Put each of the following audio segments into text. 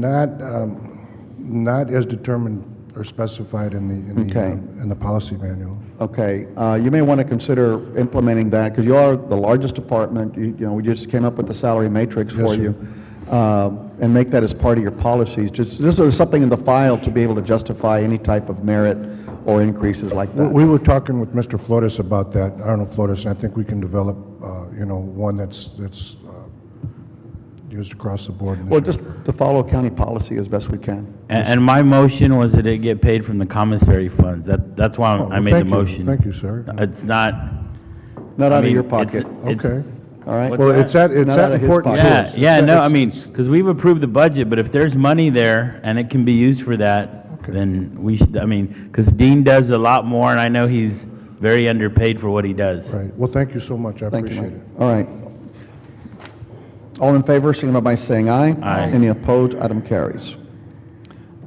Not, um, not as determined or specified in the, in the, Okay. um, in the policy manual. Okay, uh, you may want to consider implementing that, because you are the largest department, you you know, we just came up with the salary matrix Yes, for sir. you, Um, and make that as part of your policies, just, this is something in the file to be able to justify any type of merit or increases like We- that. We were talking with Mr. Flores about that, Arnold Flores, and I think we can develop, uh, you know, one that's, that's uh, used across the board. in this Well, area. just to follow county policy as best we can. And, and my motion was that it get paid from the commissary funds. That, that's why Oh, I well, made the thank you. motion. Thank you, sir. It's not. Not I out of mean, your it's- pocket, it's- Okay. all right? Well, it's that, it's Not out that of his important. to pocket. Yeah, us. yeah, no, I It's- mean, because we've approved the budget, but if there's money there and it can be used for that, then we should, I mean, because Dean does a lot more and I know he's very underpaid for what he does. Right, well, thank you so much, I Thank you, appreciate Mike. it. All right. All in favor, signify by saying aye. Aye. Any opposed, item carries.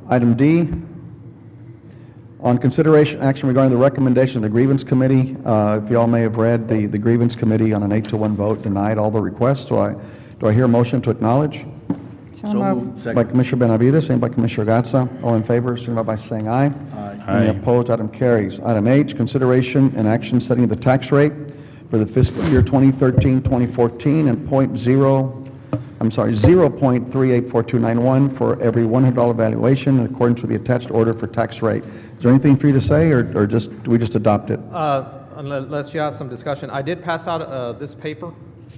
Item D, on consideration action regarding the recommendation of the grievance committee, uh, if you all may have read, the the grievance committee on an eight to one vote denied all the requests. Do I, do I hear a motion to acknowledge? So moved. By Commissioner Benavides, second by Commissioner Gatsa. All in favor, signify by saying aye. Aye. Any Aye. opposed, item carries. Item H, consideration and action setting the tax rate for the fiscal year 2013, 2014, and point zero, I'm sorry, 0.384291 for every $100 valuation in accordance with the attached order for tax rate. Is there anything for you to say, or or just, do we just adopt it? Uh, Unless you have some discussion, I did pass out uh, this paper.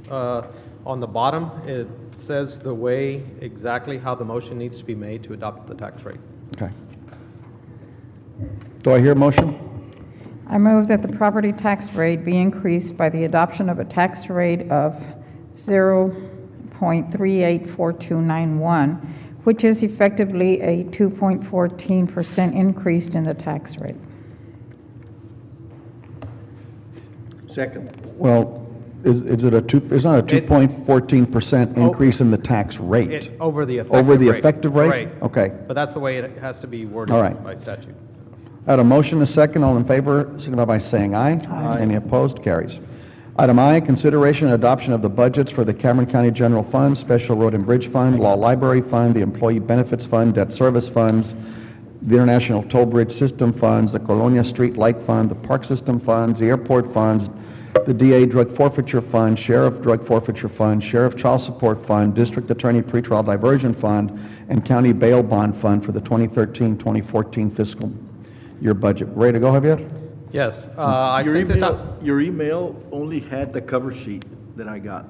uh, On the bottom, it says the way, exactly how the motion needs to be made to adopt the tax rate. Okay. Do I hear a motion? I move that the property tax rate be increased by the adoption of a tax rate of 0.384291, which is effectively a 2.14% increase in the tax rate. Well, is, is it a two, it's not a two It- Oh. point fourteen percent increase in the tax rate? It- Over the effective rate. Over the effective rate? Right. Okay. But that's the way it has to be worded All right. by statute. At a motion, a second, all in favor, signify by saying aye. Aye. Any opposed, carries. Item I, consideration and adoption of the budgets for the Cameron County General Fund, Special Road and Bridge Fund, Law Library Fund, the Employee Benefits Fund, Debt Service Funds, the International Toll Bridge System Funds, the Colonia Street Light Fund, the Park System Funds, the Airport Funds, the DA Drug Forfeiture Fund, Sheriff Drug Forfeiture Fund, Sheriff Child Support Fund, District Attorney Pretrial Diversion Fund, and County Bail Bond Fund for the 2013-2014 fiscal year budget. Ready to go, Javier? Yes, uh, I Your sent this out. email, your email only had the cover sheet that I got.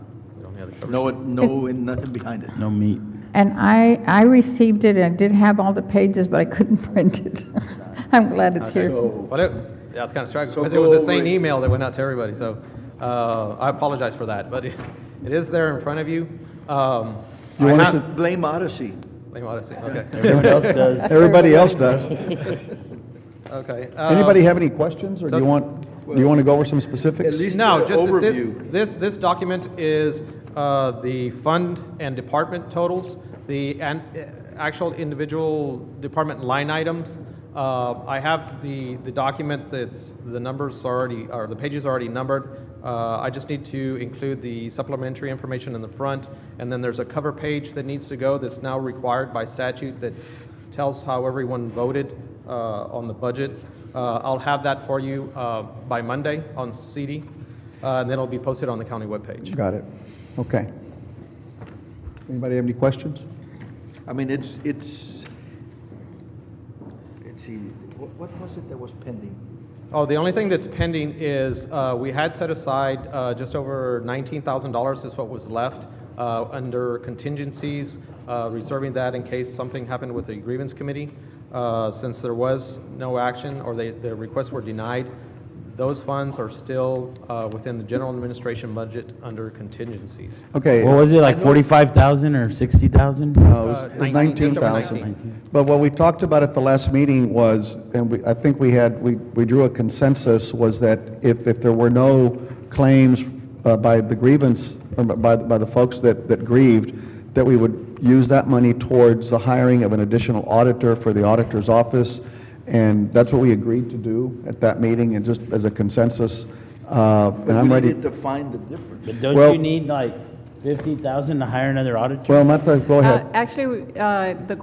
No, no, and nothing behind it. No meat. And I, I received it, and I did have all the pages, but I couldn't print it. I'm glad it's here. But it, yeah, it's kind of striking, So because it was go the same over it. email that went out to everybody, so, uh, I apologize for that, but it it is there in front of you. Um, You I want us have- to- Blame Odyssey. Let me want to see, okay, Everyone else does. Everybody else does. okay. um, Anybody have any questions, or do you so- want, do you want to go over some At specifics? least No, the just that this, overview. this, this document is uh, the fund and department totals, the an- uh, actual individual department line items. Uh, I have the, the document that's, the numbers are already, or the pages are already numbered. Uh, I just need to include the supplementary information in the front, and then there's a cover page that needs to go that's now required by statute that tells how everyone voted uh, on the budget. Uh, I'll have that for you uh, by Monday on CD, uh, and then it'll be posted on the county webpage. Got it. Okay. Anybody have any questions? I mean, it's, it's, let's see, what, what was it that was pending? Oh, the only thing that's pending is, uh, we had set aside uh, just over $19,000 is what was left uh, under contingencies, uh, reserving that in case something happened with the grievance committee. Uh, Since there was no action, or they, the requests were denied, those funds are still uh, within the general administration budget under contingencies. Okay. What was it, like 45,000 or 60,000? No, it was- Uh, it was 19, just over 19,000. 19. But what we talked about at the last meeting was, and we, I think we had, we, we drew a consensus, was that if, if there were no claims uh, by the grievance, or by, by the folks that, that grieved, that we would use that money towards the hiring of an additional auditor for the auditor's office, and that's what we agreed to do at that meeting, and just as a consensus. Uh, And I'm We ready. needed to find the difference. But Well- don't you need like 50,000 to hire another auditor? Well, not the, go ahead. Uh, Actually, uh, the